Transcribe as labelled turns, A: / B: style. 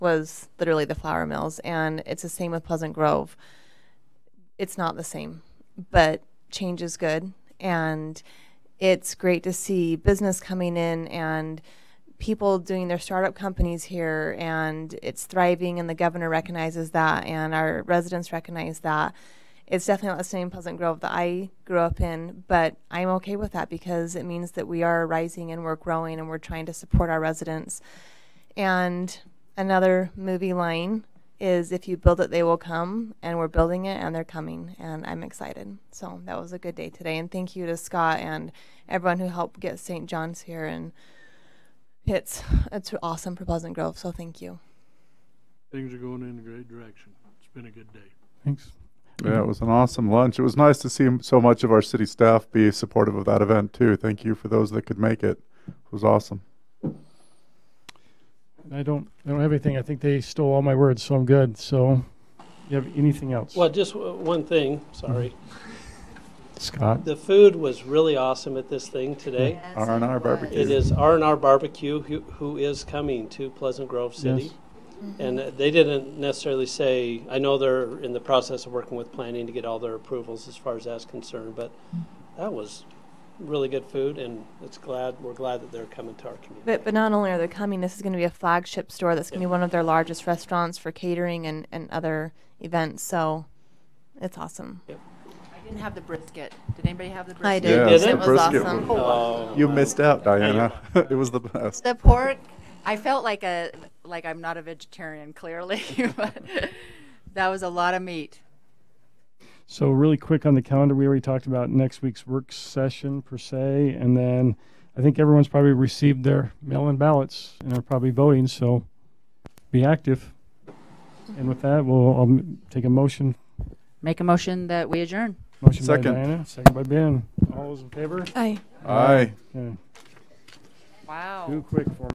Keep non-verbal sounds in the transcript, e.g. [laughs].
A: was literally the flour mills, and it's the same with Pleasant Grove. It's not the same, but change is good, and it's great to see business coming in and people doing their startup companies here, and it's thriving, and the governor recognizes that, and our residents recognize that. It's definitely not the same Pleasant Grove that I grew up in, but I'm okay with that because it means that we are rising and we're growing and we're trying to support our residents. And another movie line is if you build it, they will come. And we're building it and they're coming. And I'm excited. So that was a good day today. And thank you to Scott and everyone who helped get St. John's here. And it's, it's awesome for Pleasant Grove. So thank you.
B: Things are going in a great direction. It's been a good day.
C: Thanks.
D: Yeah, it was an awesome lunch. It was nice to see m- so much of our city staff be supportive of that event too. Thank you for those that could make it. It was awesome.
C: I don't, I don't have anything. I think they stole all my words, so I'm good. So, you have anything else?
E: Well, just w- one thing, sorry.
C: Scott?
E: The food was really awesome at this thing today.
D: R and R barbecue.
E: It is R and R Barbecue who, who is coming to Pleasant Grove City. And uh, they didn't necessarily say, I know they're in the process of working with planning to get all their approvals as far as that's concerned, but that was really good food and it's glad, we're glad that they're coming to our community.
A: But, but not only are they coming, this is going to be a flagship store that's going to be one of their largest restaurants for catering and, and other events. So it's awesome.
F: I didn't have the brisket. Did anybody have the brisket?
A: I
D: Yeah,
A: did.
E: Yes,
A: it
E: the
A: was
D: brisket
A: awesome.
D: was-
E: Oh,
D: You missed out, Diana. [laughs] it was the best.
F: The pork, I felt like a like I'm not a vegetarian [laughs] clearly, but that was a lot of meat.
C: So, really quick on the calendar, we already talked about next week's work session per se, and then I think everyone's probably received their mail-in ballots and are probably voting. So, be active. And with that, we'll I'll m- take a motion.
F: Make a motion that we adjourn.
C: Motion
D: Second.
C: by Diana, second by Ben. All those in favor?
A: Aye.
D: Aye.
C: Okay.
F: Wow.
C: Too quick for me.